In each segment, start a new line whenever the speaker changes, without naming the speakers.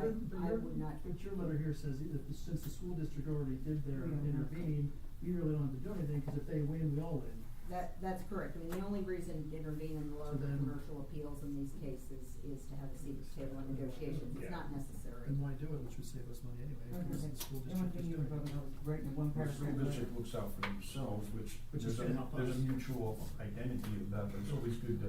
but
I
your,
would not-
but your letter here says that the- since the school district already did their
We don't have to.
intervene, we really don't have to do anything, cause if they win, we all win.
That, that's correct, I mean, the only reason to intervene in the
So
larger
then-
commercial appeals in these cases is to have a seat at the table in negotiations,
Yeah.
it's not necessary.
Then why do it, which would save us money anyway, because the school
The only
district is
thing you
doing
were
it.
talking about was writing one
The
paragraph.
school district looks out for themselves, which,
Which
there's
is
a,
gonna help
there's
us.
a mutual identity of that, but it's always good to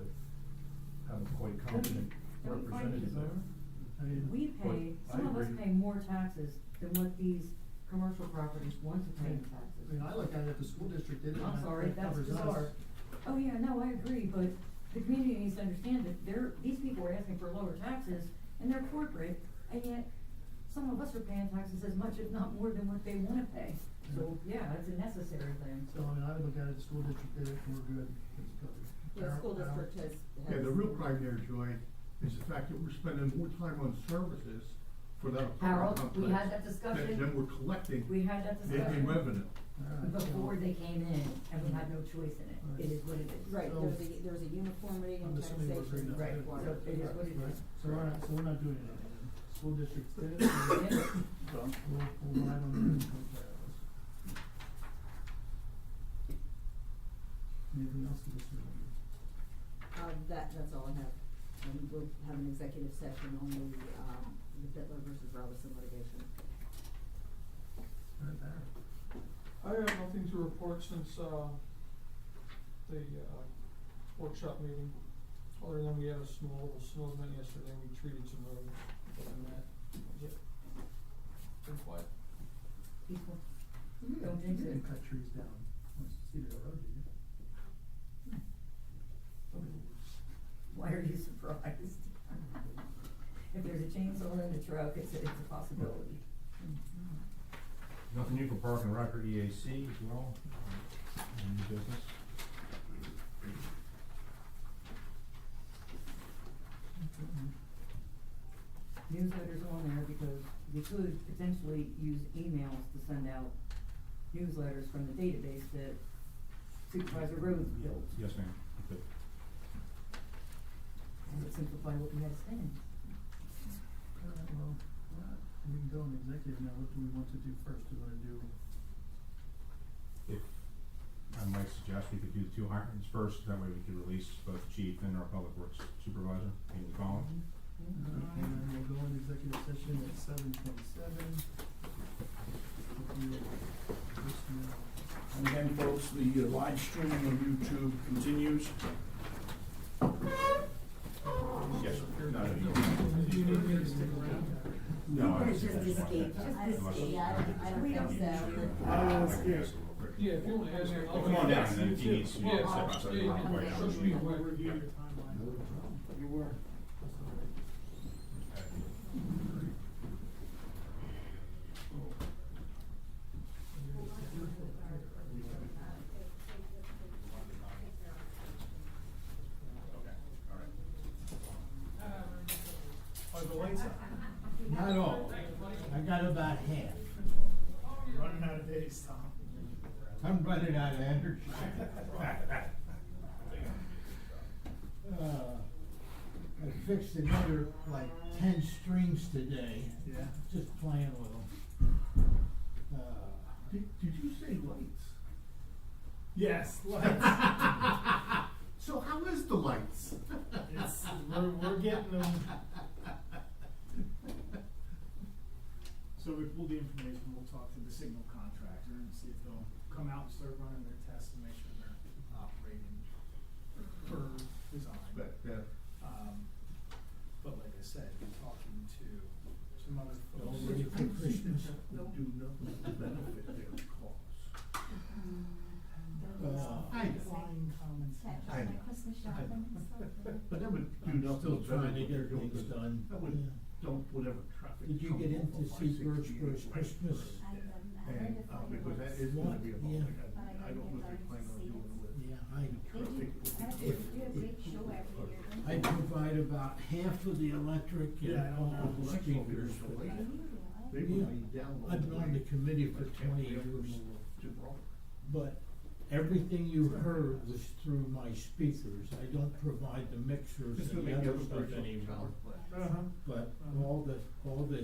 have a quite competent
Don't we find
representative there.
people-
I mean.
We
Well,
pay,
I
some of us
agree.
pay more taxes than what these commercial properties want to pay in
I mean, I
taxes.
look at it, if the school district did it,
I'm
that
sorry,
that
that's
covers us.
bizarre. Oh, yeah, no, I agree, but the community needs to understand that they're, these people are asking for lower taxes and they're corporate, and yet some of us are paying taxes as much, if not more than what they wanna pay. So, yeah, it's a necessary thing.
So, I mean, I would look at it, the school district did it, and we're good, it's covered.
The school
Our- our-
district has,
Yeah,
has-
the real crime there, Joy, is the fact that we're spending more time on services for that apartment
Harold,
complex.
we had that
than-
discussion.
Than we're collecting
We had that
in
discussion.
revenue.
All right, so-
Before they came in, and we had no choice in it, it is what it is.
right,
So-
there's a, there's a uniformity
I'm
in
assuming we're
taxation
agreeing not to do it.
required.
So it is what it
Right,
is.
so we're not, so we're not doing anything, then. school districts did it, and we'll, we'll rely on them to take care of us. Anything else to this review?
Uh, that, that's all I have, and we'll have an executive session on the, um, the Bitler versus Robinson litigation.
Right there.
I have nothing to report since, uh, the, uh, workshop meeting, other than we had a small, a snow event yesterday, we treated some roads, but then that, was it. Been quiet.
People,
You
Don't
didn't-
jinx
You didn't
it.
cut trees down once you see the road, did you?
why are you surprised? If there's a chainsaw in the truck, it's, it's a possibility.
Nothing new for Park and Rec or EAC as well, um, and new business.
Mm-hmm. Newsletters on there because we could potentially use emails to send out newsletters from the database that Supervisor Rhodes built.
Yes, ma'am. Okay.
And it simplify what we had to send.
All right, well, all right, we can go in executive now, what do we want to do first, do we wanna do,
If, I might suggest we could do the two hirings first, that way we could release both chief and our public works supervisor, Amy Collins.
and
Mm-hmm.
then we'll go in executive session at seven twenty-seven.
And again, folks, the uh, live streaming on YouTube continues.
Yes, sir. No, no, you-
Do you need me to stick around?
No, I
Or
was-
just
that's fine.
escape, just
Unless-
escape. I- I don't
Unless-
think so.
Sure.
I don't wanna
I can
escape.
ask real quick.
Yeah, if you wanna ask, I'll.
Well, Come on down, and then if you need to
Yeah,
step outside,
yeah,
you can
yeah,
wait.
sure,
Yeah.
be away.
Yeah.
You were.
Are the lights on?
Not all.
I got about half.
Running out of days, Tom.
I'm running out of energy. Uh, I fixed another like ten strings today,
Yeah.
just playing with them. Uh,
Did, did you say lights?
Yes, lights.
So how is the lights?
It's, we're, we're getting them. So we pulled the information, we'll talk to the signal contractor and see if they'll come out and start running their tests to make sure they're operating per design.
But, uh,
Um, but like I said, we're talking to some other
those
folks.
ready for Christmas.
would do nothing to benefit their cause.
Hmm.
uh,
I know,
Flying common sense.
I know. But that would do nothing.
Still
to
trying to
benefit
get
their
things
good.
done.
That would
Yeah.
dump whatever traffic.
Did you
come
get
off
in to
of
see Birchburg
568 right
Christmas?
there. And, uh, because that is gonna be a
Yeah.
public, I don't know if they plan on doing it with.
Yeah, I,
traffic.
if, if, I provide about half of the electric
Yeah,
and
I
all
don't know.
the
That's all there
speakers
is to
for
like.
that.
They
Yeah.
would be down.
I've been on the committee for 20 years.
Gibraltar.
But everything you heard was through my speakers. I don't provide the mixers
Just to
and the
make
other
everybody
stuff
feel
anymore.
powerful.
Uh-huh.
But all the, all the